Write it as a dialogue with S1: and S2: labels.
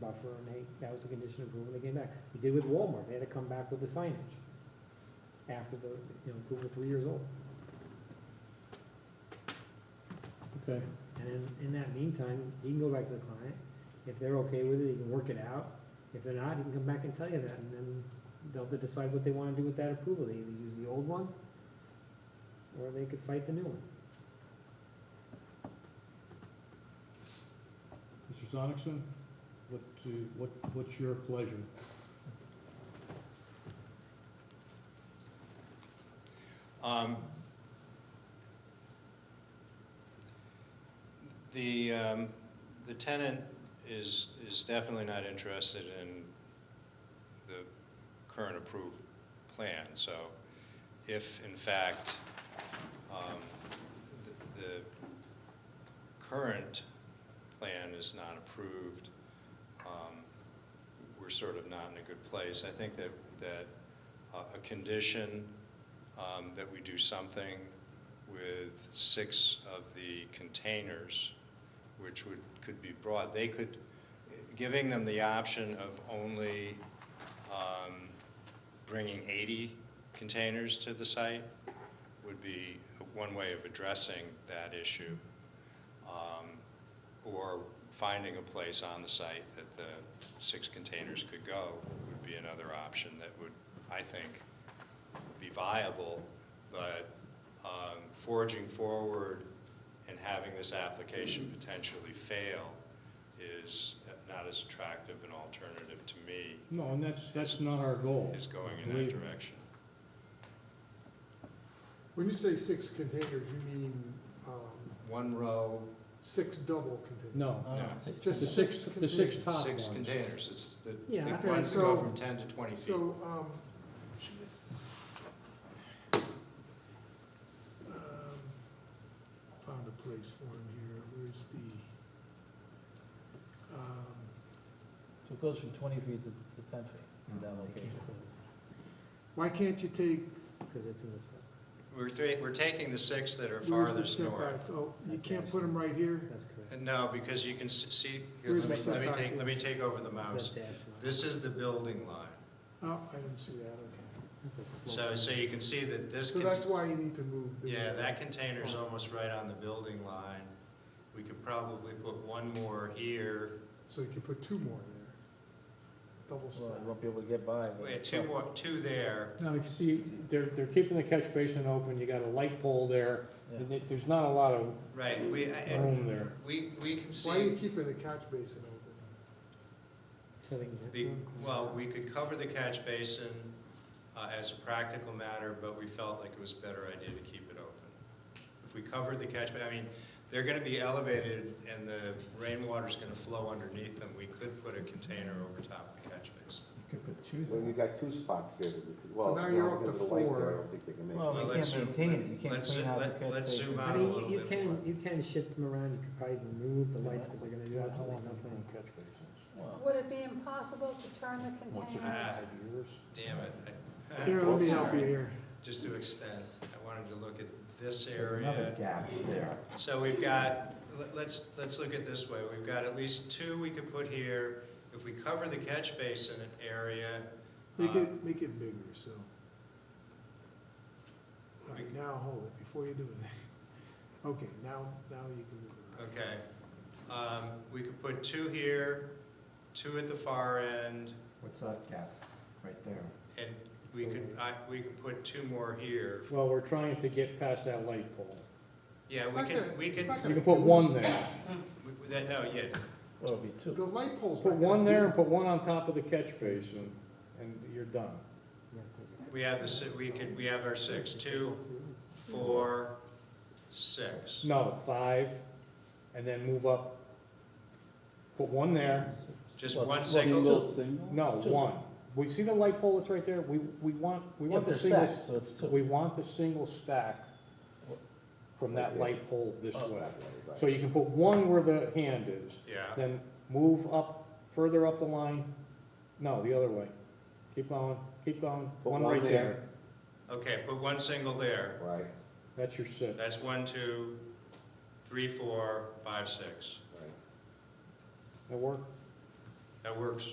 S1: buffer, and they, that was a condition of approval, and they came back. We did with Walmart, they had to come back with the signage after the, you know, approval three years old.
S2: Okay,
S1: And in, in that meantime, he can go back to the client, if they're okay with it, he can work it out, if they're not, he can come back and tell you that, and then they'll have to decide what they wanna do with that approval, they either use the old one, or they could fight the new one.
S2: Mr. Sonicson, what, do- what, what's your pleasure?
S3: Um, The, um, the tenant is, is definitely not interested in the current approved plan, so if in fact, um, the, the current plan is not approved, um, we're sort of not in a good place. I think that, that uh, a condition um, that we do something with six of the containers, which would, could be brought, they could, giving them the option of only um, bringing 80 containers to the site would be one way of addressing that issue. Um, Or finding a place on the site that the six containers could go would be another option that would, I think, be viable, but um, forging forward and having this application potentially fail is not as attractive an alternative to me
S2: No, and that's, that's not our goal.
S3: as going in that
S2: Believe me.
S3: direction.
S4: When you say six containers, you mean, um,
S3: One row,
S4: six double containers?
S2: No,
S3: No.
S4: The
S2: the six, the six
S4: containers.
S2: top
S3: Oh, six
S2: ones.
S3: containers, it's, the
S1: Yeah,
S3: the
S1: I-
S3: ones that
S4: Okay,
S3: go
S4: so-
S3: from 10 to 20 feet.
S4: So, um, um, found a place for him here, where's the, um,
S5: So it goes from twenty feet to, to ten feet in that
S1: They
S5: location.
S1: can't put it,
S4: why can't you take,
S1: Cause it's in the, s-
S3: We're, ta- we're taking the six that are
S4: where's the
S3: farthest north.
S4: setback? Oh, you can't put them right here?
S1: that's correct.
S3: Uh, No, because you can s- see, here, let me,
S4: Where's the
S3: let me
S4: setback
S3: take, let me
S4: is?
S3: take over the
S1: That's
S3: mouse.
S1: a dash line.
S3: um, This is the building line.
S4: Oh, I didn't see that, okay.
S1: That's a slope.
S3: So, so you can see that this.
S4: So
S3: cont-
S4: that's why you need to move. the-
S3: Yeah, that container's almost right on the building line. We could probably put one more here,
S4: So you can put two more there, double
S5: Well, you
S4: stack.
S5: won't be able to get by. but-
S3: wait, two more, two there.
S2: Now, you see, they're, they're keeping the catch basin open, you got a light pole there,
S5: Yeah.
S2: and there- there's not a lot of
S3: Right, we, I- I-
S2: room there.
S3: we, we can
S4: Why are you
S3: see,
S4: keeping the catch basin open?
S1: So they can get
S3: the-
S1: one.
S3: well, we could cover the catch basin uh, as a practical matter, but we felt like it was a better idea to keep it open. If we covered the catch, ba- I mean, they're gonna be elevated and the rainwater's gonna flow underneath them. We could put a container over top of the catch basin.
S6: Well, you got two spots there, that we could- well,
S4: now you're
S6: now
S4: up
S6: because
S4: to
S6: of the light there, I
S4: four.
S6: don't think they can make
S5: Well,
S6: it.
S3: Well,
S5: you
S3: let's
S5: can't
S3: zoom-
S5: maintain it, you can't
S3: let's-
S5: clean out the
S3: let-
S5: catch
S3: let's zoom
S5: basin.
S1: I
S3: out a
S1: mean,
S3: little
S1: you
S3: bit more.
S1: can, you can shift them around, you could probably remove the lights, cause they're gonna do absolutely nothing.
S5: Well,
S7: Would it be impossible to turn the containers?
S3: Ah, Damn it. I-
S4: Here, let me help you
S3: Eh, Sorry.
S4: here.
S3: Just to extend, I wanted to look at this
S6: There's another
S3: area.
S6: gap there.
S3: So we've got, let- let's, let's look at this way. We've got at least two we could put here. If we cover the catch basin area,
S4: Make
S3: Uh,
S4: it, make it bigger, so. All right, now hold it, before you do it. Okay, now, now you can move it around.
S3: uh, okay, um, we could put two here, two at the far end,
S6: What's that gap, right there?
S3: and we could, I, we could put two more here.
S2: Well, we're trying to get past that light pole.
S3: Yeah,
S4: It's
S3: we
S4: not gonna-
S3: could, we
S4: it's
S3: could,
S4: not
S2: You
S4: gonna
S2: can put
S4: do
S2: one
S4: it.
S2: there,
S3: we- that, no, yeah,
S5: well, it'd be
S4: The
S5: two.
S4: light pole's not
S2: put
S4: gonna
S2: one
S4: do
S2: there and
S4: it.
S2: put one on top of the catch basin, and you're done.
S1: You have to-
S3: we have the, si- we could, we have our six, two, four, six.
S2: No, five, and then move up. Put one there,
S3: Just
S5: Well,
S3: one
S5: well,
S3: single,
S2: no, one. We see the light pole that's right there, we, we want, we
S5: Yeah,
S2: want
S5: they're
S2: the single,
S5: stacked, so it's two.
S2: we want the single stack from that light pole this
S5: Oh.
S2: way.
S6: That way, Uh, right.
S2: uh, So you can put one where the hand is,
S3: yeah,
S2: then move up, further up the line, no, the other way. Keep going, keep going,
S6: Put
S2: one right there,
S3: okay, put one single there.
S6: Right,
S2: that's your six.
S3: That's one, two, three, four, five, six.
S6: right.
S2: That work?
S3: That works.